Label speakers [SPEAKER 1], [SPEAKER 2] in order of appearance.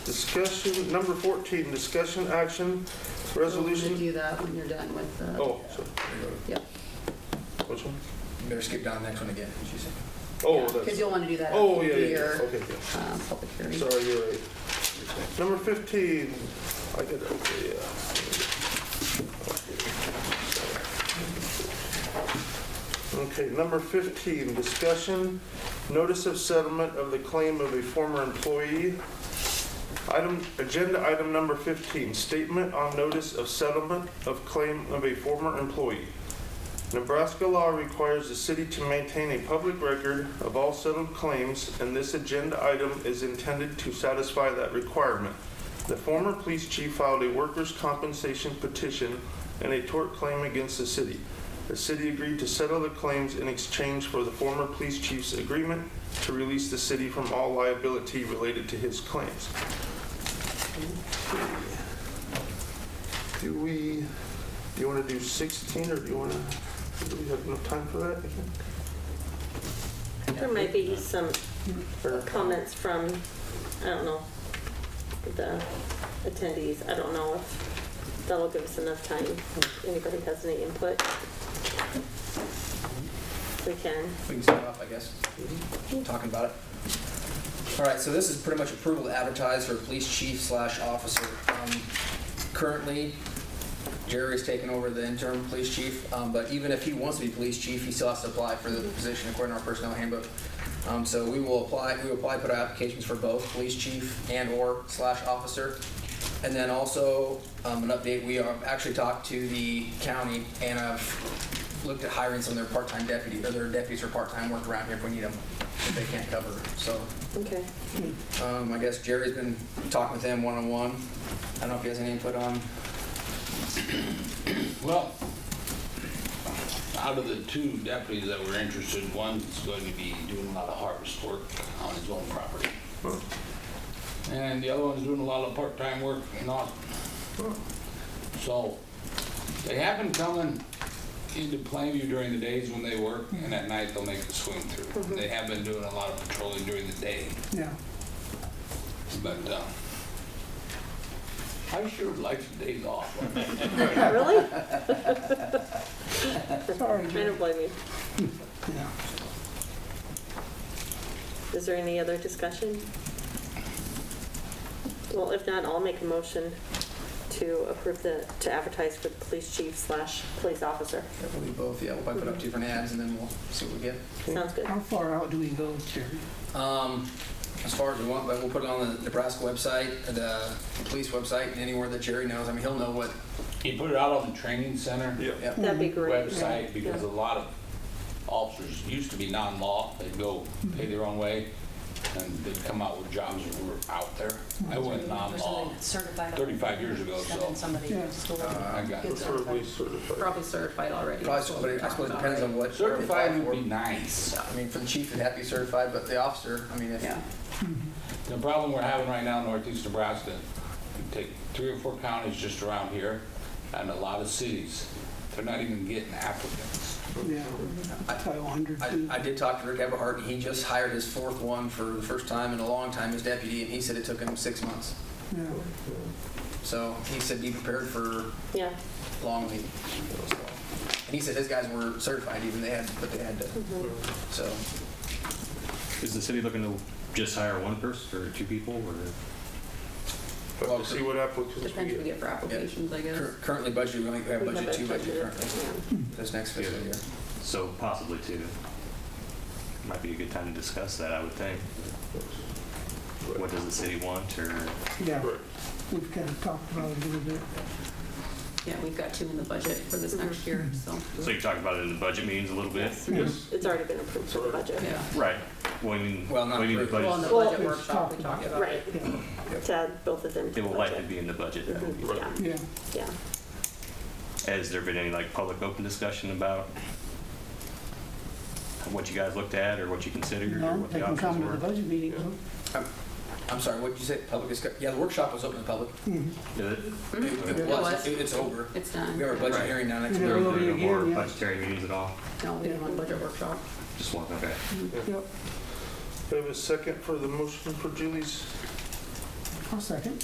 [SPEAKER 1] Discussion, number 14, discussion action,
[SPEAKER 2] We'll
[SPEAKER 1] resolution.
[SPEAKER 2] Do that when you're done with the,
[SPEAKER 1] Oh, so-
[SPEAKER 2] Yep.
[SPEAKER 1] Which one?
[SPEAKER 3] You Better skip down the next one again, she said.
[SPEAKER 1] Oh,
[SPEAKER 2] because
[SPEAKER 1] that's,
[SPEAKER 2] you'll want to do that
[SPEAKER 1] oh,
[SPEAKER 2] after
[SPEAKER 1] yeah, yeah, yeah,
[SPEAKER 2] your
[SPEAKER 1] okay, yeah.
[SPEAKER 2] um, public hearing.
[SPEAKER 1] Sorry, you're right. Number 15, I get that, okay, yeah. Okay, number 15, discussion, notice of settlement of the claim of a former employee. Item, agenda item number 15, statement on notice of settlement of claim of a former employee. Nebraska law requires the city to maintain a public record of all settled claims, and this agenda item is intended to satisfy that requirement. The former police chief filed a workers' compensation petition and a tort claim against the city. The city agreed to settle the claims in exchange for the former police chief's agreement to release the city from all liability related to his claims. Do we, do you want to do 16 or do you want to, do we have enough time for that?
[SPEAKER 4] There might be some
[SPEAKER 1] Or-
[SPEAKER 4] comments from, I don't know, the attendees. I don't know if that'll give us enough time. If Anybody has any input? We can.
[SPEAKER 3] We can start off, I guess, talking about it. All right, so this is pretty much approval to advertise for police chief slash officer. Um, Currently, Jerry's taking over the interim police chief, um, but even if he wants to be police chief, he still has to apply for the position according to our personnel handbook. Um, So we will apply, we will apply, put our applications for both police chief and/or slash officer. And then also, um, an update, we have actually talked to the county and I've looked at hiring some of their part-time deputies, or their deputies for part-time work around here if we need them, if they can't cover. So
[SPEAKER 4] Okay.
[SPEAKER 3] um, I guess Jerry's been talking with them one-on-one. I don't know if he has any input on,
[SPEAKER 5] Well, out of the two deputies that were interested, one's going to be doing a lot of harvest work on his own property. And the other one's doing a lot of part-time work in Austin. So they have been coming into Plainview during the days when they work, and at night they'll make the swing through. They have been doing a lot of patrolling during the day,
[SPEAKER 6] Yeah,
[SPEAKER 5] but, uh, I sure like the days off.
[SPEAKER 4] Really?
[SPEAKER 6] sorry,
[SPEAKER 4] I don't blame you.
[SPEAKER 6] yeah.
[SPEAKER 4] Is there any other discussion? Well, if not, I'll make a motion to approve the, to advertise for the police chief slash police officer.
[SPEAKER 3] I believe both, yeah, we'll probably put up two different ads and then we'll see what we get.
[SPEAKER 4] Sounds good.
[SPEAKER 6] How far out do we go, Jerry?
[SPEAKER 3] Um, as far as we want, but we'll put it on the Nebraska website, the police website, and anywhere that Jerry knows. I mean, he'll know what,
[SPEAKER 5] He put it out on the training center.
[SPEAKER 1] Yeah.
[SPEAKER 3] yeah.
[SPEAKER 4] That'd be great.
[SPEAKER 5] website because a lot of officers used to be non-law. They'd go pay their own way and they'd come out with jobs that were out there. I went non-law.
[SPEAKER 7] Certified.
[SPEAKER 5] 35 years ago,
[SPEAKER 7] Send
[SPEAKER 5] so-
[SPEAKER 7] in Somebody
[SPEAKER 6] Yeah.
[SPEAKER 7] store.
[SPEAKER 5] I got it.
[SPEAKER 7] Gets
[SPEAKER 1] Preferably
[SPEAKER 7] certified.
[SPEAKER 1] certified.
[SPEAKER 2] Probably certified already.
[SPEAKER 3] Probably, so- but I suppose it depends on what.
[SPEAKER 5] Certified would be nice.
[SPEAKER 3] I mean, for the chief, it'd have to be certified, but the officer, I mean, if,
[SPEAKER 2] Yeah.
[SPEAKER 5] The problem we're having right now in northeast Nebraska, you take three or four counties just around here and a lot of cities, they're not even getting applicants.
[SPEAKER 6] Yeah, probably a hundred.
[SPEAKER 3] I, I did talk to Rick Everhart, and he just hired his fourth one for the first time in a long time as deputy, and he said it took him six months.
[SPEAKER 6] Yeah,
[SPEAKER 3] So he said be prepared for
[SPEAKER 4] Yeah,
[SPEAKER 3] long lead. so. And he said his guys were certified, even they had, but they had to, so.
[SPEAKER 8] Is the city looking to just hire one person or two people or?
[SPEAKER 1] Have to see what applicants we
[SPEAKER 2] Depends what
[SPEAKER 1] get.
[SPEAKER 2] we get for applications, I guess.
[SPEAKER 3] Cur- Currently budgeted, we only have
[SPEAKER 4] We have
[SPEAKER 3] budget
[SPEAKER 4] it
[SPEAKER 3] two budget
[SPEAKER 4] budgeted,
[SPEAKER 3] currently,
[SPEAKER 4] yeah.
[SPEAKER 3] this next fiscal
[SPEAKER 8] Yeah.
[SPEAKER 3] year.
[SPEAKER 8] So possibly two. Might be a good time to discuss that, I would think. What does the city want or,
[SPEAKER 6] yeah,
[SPEAKER 1] Right.
[SPEAKER 6] we've kind of talked about it a little bit.
[SPEAKER 2] Yeah, we've got two in the budget for this
[SPEAKER 7] Mm-hmm.
[SPEAKER 2] next year, so,
[SPEAKER 8] so you talked about it in the budget meetings a little bit?
[SPEAKER 1] Yes.
[SPEAKER 4] It's already been approved for the budget.
[SPEAKER 2] yeah.
[SPEAKER 8] Right. Well, I mean,
[SPEAKER 3] Well, not
[SPEAKER 8] we need the
[SPEAKER 3] approved.
[SPEAKER 2] Well, in
[SPEAKER 8] budget.
[SPEAKER 2] the
[SPEAKER 4] Well,
[SPEAKER 2] budget
[SPEAKER 6] it's
[SPEAKER 2] workshop, we
[SPEAKER 6] talked
[SPEAKER 2] talked about
[SPEAKER 4] Right,
[SPEAKER 2] it.
[SPEAKER 6] Yeah,
[SPEAKER 4] to add both of them to the
[SPEAKER 8] It will likely
[SPEAKER 4] budget.
[SPEAKER 8] be in the budget.
[SPEAKER 4] Mhm, Yeah,
[SPEAKER 6] yeah.
[SPEAKER 4] yeah.
[SPEAKER 8] Has there been any like public open discussion about what you guys looked at or what you considered or
[SPEAKER 6] No,
[SPEAKER 8] what
[SPEAKER 6] they
[SPEAKER 8] the
[SPEAKER 6] can
[SPEAKER 8] options
[SPEAKER 6] come to the
[SPEAKER 8] were?
[SPEAKER 6] budget meeting, huh?
[SPEAKER 3] I'm sorry, what did you say, public discuss, yeah, the workshop was open to the public.
[SPEAKER 6] Mhm.
[SPEAKER 8] Did it?
[SPEAKER 3] It
[SPEAKER 6] It
[SPEAKER 3] was,
[SPEAKER 2] Mm-hmm. was.
[SPEAKER 3] It- it's over.
[SPEAKER 2] It's
[SPEAKER 3] We
[SPEAKER 2] done.
[SPEAKER 3] have a budget
[SPEAKER 8] Right.
[SPEAKER 3] hearing now next
[SPEAKER 6] Yeah.
[SPEAKER 3] week.
[SPEAKER 8] There
[SPEAKER 6] will
[SPEAKER 8] were
[SPEAKER 6] be
[SPEAKER 8] no more
[SPEAKER 6] again, yeah.
[SPEAKER 8] budgetary meetings at all?
[SPEAKER 2] No, we didn't want budget workshop.
[SPEAKER 8] Just one, okay.
[SPEAKER 6] Yep.
[SPEAKER 1] We have a second for the motion for Julie's
[SPEAKER 6] I'll second.